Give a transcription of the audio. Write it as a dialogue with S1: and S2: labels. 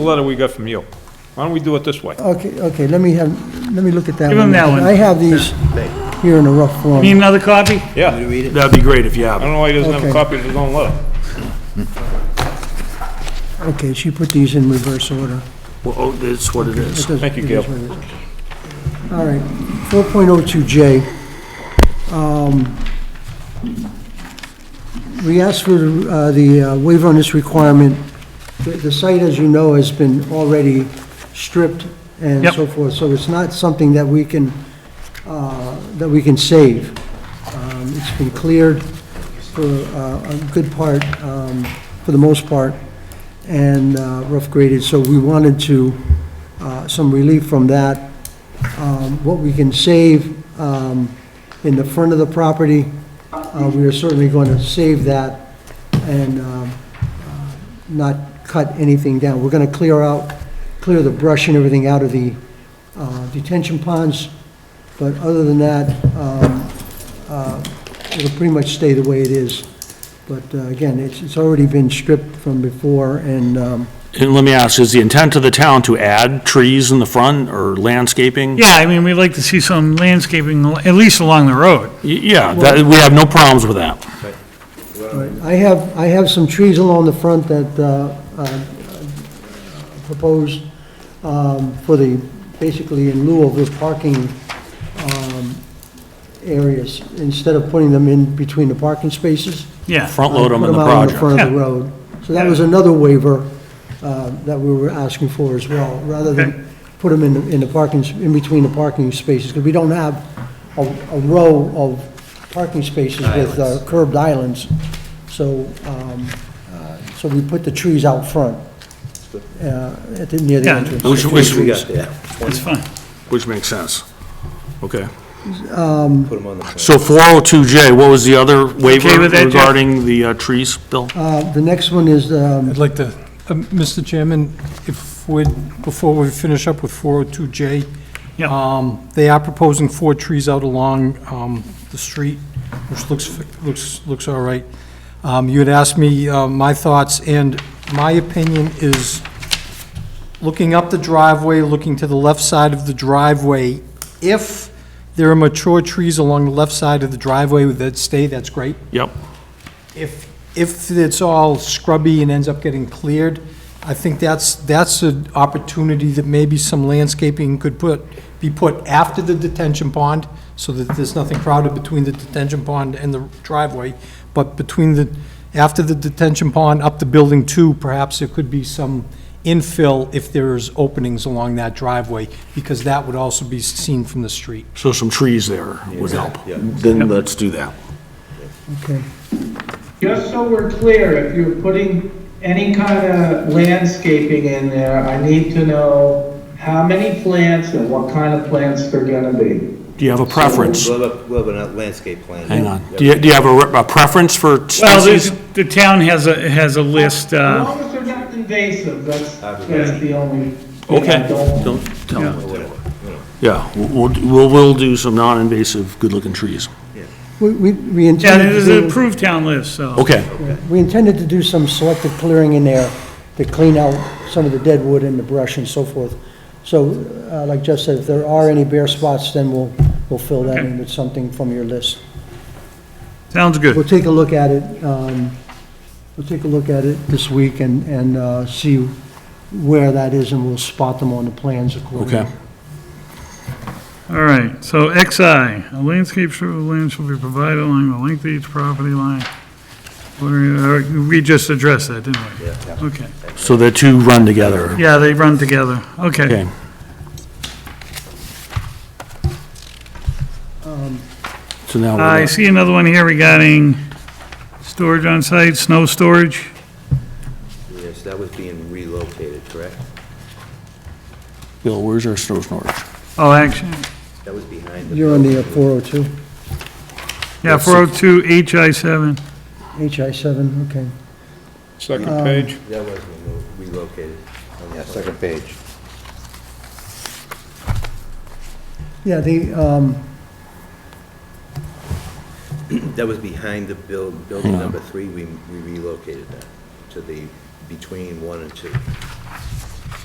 S1: letter we got from you. Why don't we do it this way?
S2: Okay, okay, let me have, let me look at that one.
S3: Give him that one.
S2: I have these here in a rough form.
S3: Need another copy?
S1: Yeah. I
S4: That'd be great if you have
S1: don't
S4: it.
S1: know why he doesn't have a
S2: Okay.
S1: copy of his own letter.
S2: Okay, she put these in reverse order.
S4: Well, oh, that's what it
S2: It
S4: is.
S2: doesn't-
S1: Thank you,
S2: it is
S1: Gail.
S2: what it is. All right, 4.02J. Um, We asked for uh, the uh, waiver on this requirement. The- The site, as you know, has been already stripped and
S3: Yep.
S2: so forth, so it's not something that we can, uh, that we can save. Um, It's been cleared for uh, a good part, um, for the most part, and uh, rough graded, so we wanted to, uh, some relief from that. Um, What we can save um, in the front of the property, uh, we are certainly going to save that and um, uh, not cut anything down. We're going to clear out, clear the brush and everything out of the uh, detention ponds, but other than that, um, uh, it'll pretty much stay the way it is. But uh, again, it's it's already been stripped from before, and um,
S4: And let me ask, is the intent of the town to add trees in the front or landscaping? Y-
S3: Yeah, I mean, we'd like to see some landscaping, at least along the road.
S4: Yeah, that, we have no problems with that.
S2: Right, I have, I have some trees along the front that uh, uh, proposed um, for the, basically in lieu of the parking um, areas, instead of putting them in between the parking spaces.
S3: Yeah,
S4: Front load them in the
S2: Put
S4: project.
S2: them out in the front of the
S3: Yeah.
S2: road. So that was another waiver uh, that we were asking for as well, rather
S3: Okay.
S2: than put them in, the- in the parking, s- in between the parking spaces, because we don't have a, a row of parking spaces with uh, curved islands. So, um, uh, so we put the trees out front, uh, at the, near the
S3: Yeah.
S2: entrance.
S4: Which, which,
S3: that's fine.
S4: which makes sense. Okay.
S5: Put them on the plan.
S4: So 402J, what was the other waiver
S3: Okay with that, Jeff?
S4: regarding the uh, trees, Bill?
S2: Uh, The next one is, um,
S6: I'd like to, um, Mr. Chairman, if we, before we finish up with 402J,
S3: Yeah.
S6: um, they are proposing four trees out along um, the street, which looks, looks, looks all right. Um, You had asked me uh, my thoughts, and my opinion is, looking up the driveway, looking to the left side of the driveway, if there are mature trees along the left side of the driveway that stay, that's great.
S4: Yep.
S6: If, if it's all scrubby and ends up getting cleared, I think that's, that's an opportunity that maybe some landscaping could put, be put after the detention pond, so that there's nothing crowded between the detention pond and the driveway, but between the, after the detention pond, up to building two, perhaps there could be some infill if there's openings along that driveway, because that would also be seen from the street.
S4: So some trees there would help. Then let's do that.
S2: okay.
S7: Just so we're clear, if you're putting any kind of landscaping in there, I need to know how many plants and what kind of plants they're gonna be.
S4: Do you have a preference?
S5: We'll have, a- we'll have a landscape plan.
S4: Hang on.
S5: Yep.
S4: Do you, do you have a re- a preference for
S3: Well, there's-
S4: species?
S3: the town has a, has a list,
S7: As
S3: uh,
S7: long as they're not invasive, that's,
S5: Obviously.
S7: that's the only. thing I
S4: Okay.
S7: don't-
S4: Don't tell
S3: Yeah.
S4: me. Yeah, we'll, we'll, we'll do some non-invasive, good-looking trees.
S2: We, we we
S3: yeah,
S2: intended to
S3: there's an
S2: do,
S3: approved town list, so.
S4: Okay.
S2: we intended to do some selective clearing in there to clean out some of the dead wood and the brush and so forth. So, uh, like Jeff said, if there are any bare spots, then we'll, we'll fill that in with something from your list.
S3: Sounds good.
S2: We'll take a look at it, um, we'll take a look at it this week and, and, uh, see where that is, and we'll spot them on the plans accordingly.
S4: Okay.
S3: All right, so XI, a landscape strip of land shall be provided along the length of each property line. What are you- uh, We just addressed that, didn't we? Yeah. Okay,
S4: So the two run together.
S3: yeah, they run together, okay.
S4: Okay. So now,
S3: I
S4: we're-
S3: see another one here regarding storage on site, snow storage.
S5: Yes, that was being relocated, correct?
S4: Bill, where's our snow storage?
S3: Oh, action,
S5: That was behind the.
S2: You're on the four oh two,
S3: yeah, 402 HI7.
S2: HI seven, okay.
S1: Second page.
S5: That was removed, relocated. Yeah, second page.
S2: Yeah, the, um,
S5: That was behind the build, building number three, we we relocated that to the, between one and two.